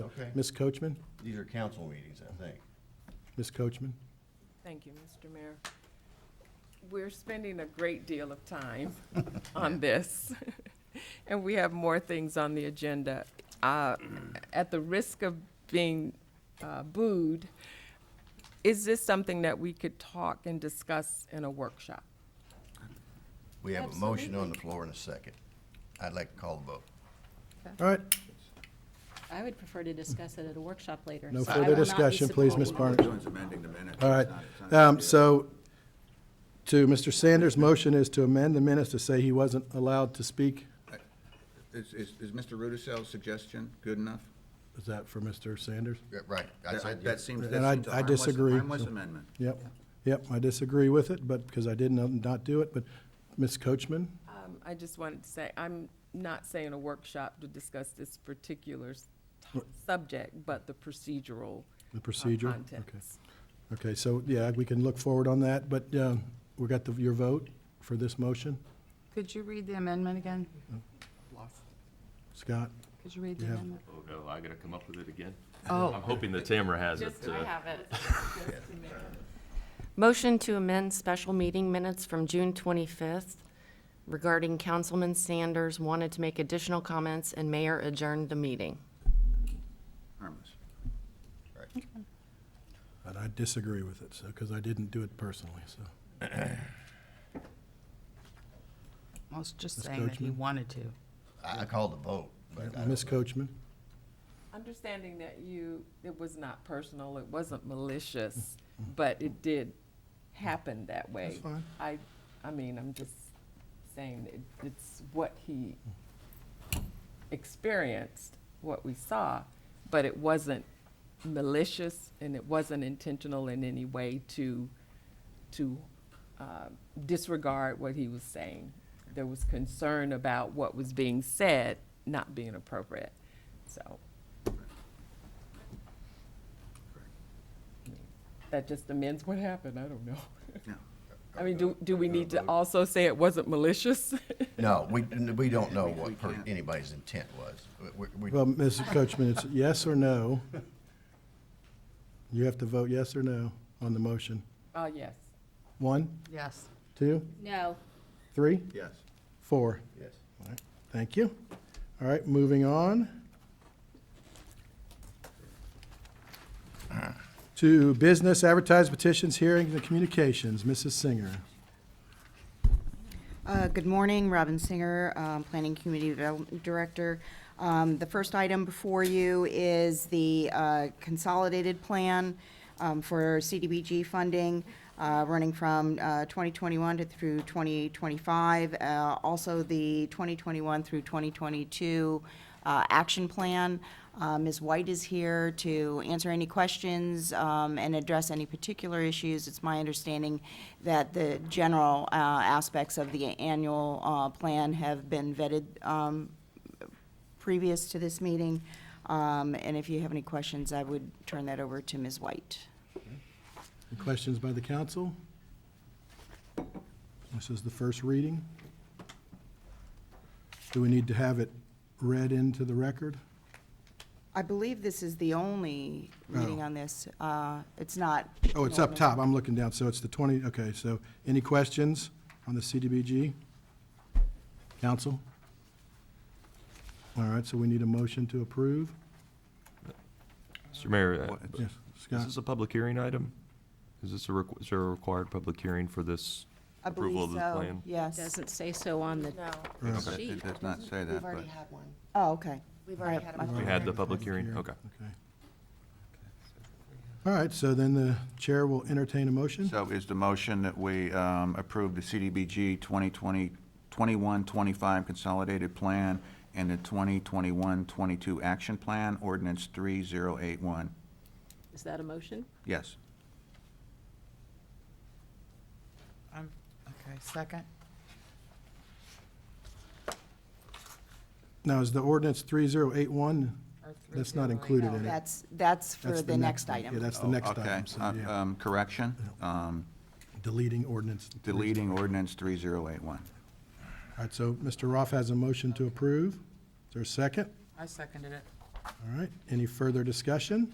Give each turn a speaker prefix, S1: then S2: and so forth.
S1: Okay.
S2: Ms. Coachman?
S1: These are council meetings, I think.
S2: Ms. Coachman?
S3: Thank you, Mr. Mayor. We're spending a great deal of time on this, and we have more things on the agenda. Uh, At the risk of being uh, booed, is this something that we could talk and discuss in a workshop?
S1: We have a motion on the floor and a second. I'd like to call the vote.
S2: All right,
S4: I would prefer to discuss it at a workshop later.
S2: no
S4: so I will
S2: further
S4: not be
S2: discussion, please,
S4: supporting-
S2: Ms.
S5: We're
S2: Barnett.
S5: doing is amending the minutes.
S2: All right,
S5: It's not- it's not a
S2: um,
S5: big deal.
S2: so to Mr. Sanders' motion is to amend the minutes to say he wasn't allowed to speak.
S5: Is, is, is Mr. Rudicel's suggestion good enough?
S2: Is that for Mr. Sanders?
S1: Yeah, Right. I
S5: That-
S1: said
S5: That seems,
S2: And I-
S5: that seems a
S2: I
S5: harmless,
S2: disagree,
S5: harmless
S2: so-
S5: amendment.
S2: Yep, yep, I disagree with it, but, because I did not not do it, but Ms. Coachman?
S3: Um, I just wanted to say, I'm not saying a workshop to discuss this particular s- subject, but the procedural.
S2: The
S3: uh,
S2: procedure? Okay.
S3: contents.
S2: Okay, so, yeah, we can look forward on that, but um, we got the- your vote for this motion,
S6: Could you read the amendment again?
S2: Scott?
S6: Could you read the
S2: Yeah.
S6: amendment?
S7: Oh, no, I gotta come up with it again? I'm
S6: Oh.
S7: hoping that Tamara has it. uh,
S8: have it. Motion to amend special meeting minutes from June 25th regarding Councilman Sanders wanted to make additional comments and mayor adjourned the meeting.
S5: Harmless.
S2: And I disagree with it, so, because I didn't do it personally, so.
S6: I was just
S2: Ms.
S6: saying that he
S2: Coachman?
S6: wanted to.
S1: I I called the vote, but I
S2: Ms.
S1: don't-
S2: Coachman?
S3: Understanding that you, it was not personal, it wasn't malicious, but it did happen that way.
S2: That's fine.
S3: I, I mean, I'm just saying it, it's what he experienced, what we saw, but it wasn't malicious and it wasn't intentional in any way to, to uh, disregard what he was saying. There was concern about what was being said not being appropriate, so. That just amends what happened, I don't know.
S5: Yeah.
S3: I mean, do, do we need to also say it wasn't malicious?
S1: No, we, we don't know
S5: We
S1: what per-
S5: can't.
S1: anybody's intent was. We- we- we-
S2: Well, Mrs. Coachman, it's yes or no. You have to vote yes or no on the motion.
S3: Uh, yes.
S2: One,
S6: Yes.
S2: two,
S4: No,
S2: three,
S5: Yes.
S2: four.
S1: Yes.
S2: All right, Thank you. All right, moving on. To business advertised petitions, hearings, and communications. Mrs. Singer.
S9: Uh, Good morning, Robin Singer, um, Planning Community Development Director. Um, The first item before you is the uh, consolidated plan um, for CDBG funding, uh, running from uh, 2021 to through 2025. uh, Also, the 2021 through 2022 uh, action plan. Uh, Ms. White is here to answer any questions um, and address any particular issues. It's my understanding that the general uh, aspects of the annual uh, plan have been vetted um, previous to this meeting. Um, And if you have any questions, I would turn that over to Ms. White.
S2: Any Questions by the council? This is the first reading. Do we need to have it read into the record?
S9: I believe this is the only reading on this. Uh, It's not.
S2: Oh, it's up top, I'm looking down, so it's the 20, okay, so any questions on the CDBG? Council? All right, so we need a motion to approve?
S7: Mr. Mayor, uh,
S5: What-
S7: b-
S2: Yes,
S7: is
S2: Scott?
S7: this a public hearing item? Is this a, requ- is there a required public hearing for this
S9: I believe
S7: approval of the
S9: so,
S7: plan?
S9: Yes.
S4: doesn't say so on the
S2: Yeah.
S5: It
S4: sheet.
S5: it does not say that, but
S8: had one.
S9: Oh, okay.
S8: We've
S9: already had a
S7: We had the public hearing, okay.
S2: Okay. All right, so then the chair will entertain a motion?
S5: So is the motion that we um, approve the CDBG 2020, 21-25 consolidated plan and the 2021-22 action plan, ordinance 3081?
S4: Is that a motion?
S5: Yes.
S6: I'm, okay, second?
S2: Now, is the ordinance 3081,
S6: Or
S2: that's not included
S9: No,
S2: in it?
S9: That's, that's for
S2: That's
S9: the next
S2: one. Yeah,
S9: item.
S2: that's the next
S5: Okay,
S7: Oh,
S2: item, so,
S5: uh,
S2: yeah,
S5: um, correction, um,
S2: deleting ordinance.
S5: deleting ordinance 3081.
S2: All right, so Mr. Roth has a motion to approve. Is there a second?
S6: I seconded it.
S2: All right, any further discussion?